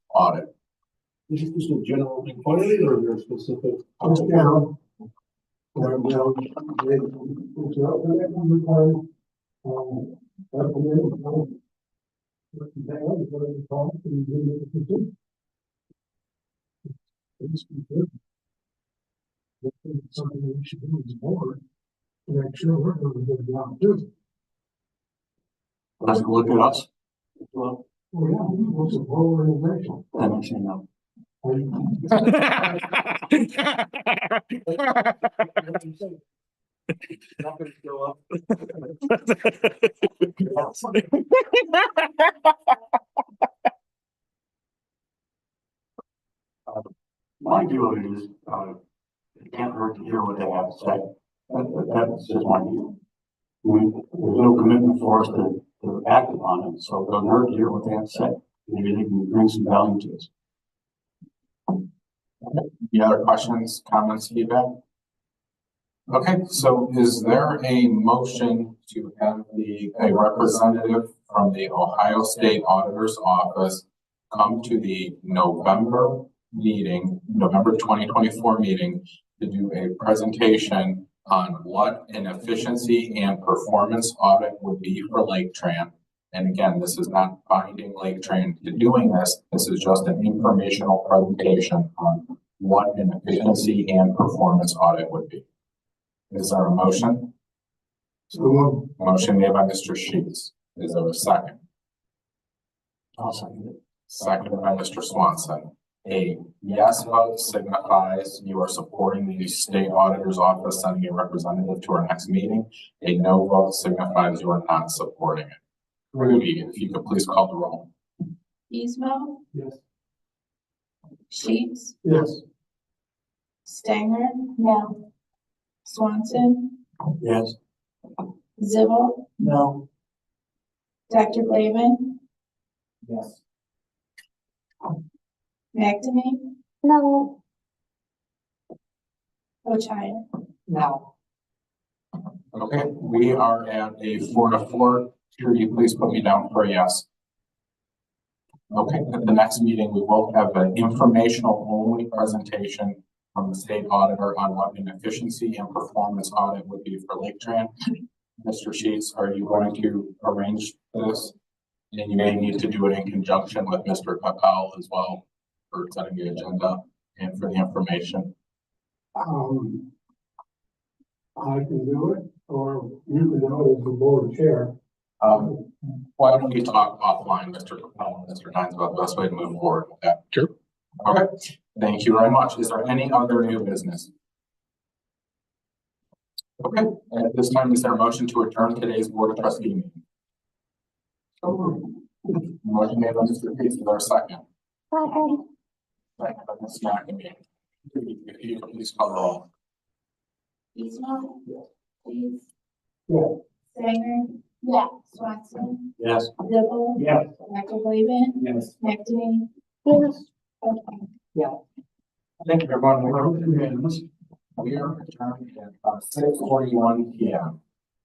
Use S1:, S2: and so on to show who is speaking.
S1: audit.
S2: This is just a general inquiry or your specific?
S1: Just general.
S2: Or, well, they- it's out there, that one required, um, that's the minimum, um, but they are the one that calls and they make it complete. It's complete. I think it's Something that we should do is more, and I'm sure we're gonna do a good job too.
S1: Doesn't look at us.
S2: Well, yeah, we was a lower organization.
S1: I don't see no.
S2: Are you-
S1: My view of it is, uh, it can't hurt to hear what they have to say. That, that- that's just my view. We, there's no commitment for us to, to act upon it, so it doesn't hurt to hear what they have to say. Maybe they can bring some value to us.
S3: Any other questions, comments, feedback? Okay, so is there a motion to have the, a representative from the Ohio State Auditor's Office come to the November meeting, November twenty twenty-four meeting to do a presentation on what an efficiency and performance audit would be for Lake Tran? And again, this is not binding Lake Tran to doing this. This is just an informational presentation on what an efficiency and performance audit would be. Is there a motion?
S2: So, um,
S3: Motion made by Mr. Sheets. Is there a second?
S1: I'll second it.
S3: Seconded by Mr. Swanson. A yes vote signifies you are supporting the state auditor's office sending a representative to our next meeting. A no vote signifies you are not supporting it. Rudy, if you could please call the roll.
S4: Ismo,
S2: yes.
S4: Sheets,
S2: Yes.
S4: Stanger. No. Swanson,
S1: Yes.
S4: Zibble,
S1: No.
S4: Dr. Blaven,
S1: Yes.
S4: McNamee,
S5: No.
S4: Ochai.
S5: No.
S3: Okay, we are at a four to four. Here, you please put me down for a yes. Okay, at the next meeting, we will have an informational only presentation from the state auditor on what an efficiency and performance audit would be for Lake Tran. Mr. Sheets, are you going to arrange this? And you may need to do it in conjunction with Mr. Papal as well for setting the agenda and for the information.
S2: Um. I can do it, or you can do it as the board chair.
S3: Um, Why don't we talk offline, Mr. Capel and Mr. Hines, about the best way to move forward with that?
S6: Sure.
S3: Okay, thank you very much. Is there any other new business? Okay, at this time, is there a motion to adjourn today's Board of Trustee meeting? Motion made by Mr. Reed, is there a second?
S5: Second.
S3: Second by Ms. McNamee. If you could please call the roll.
S4: Ismo. Sheets.
S2: Yeah.
S4: Stanger. Yeah. Swanson,
S1: Yes.
S4: Zibble.
S2: Yeah.
S4: Dr. Blaven,
S2: Yes.
S4: McNamee,
S5: Yes.
S4: Ochai.
S3: Thank you, everyone. We are adjourned at six uh, forty-one P M.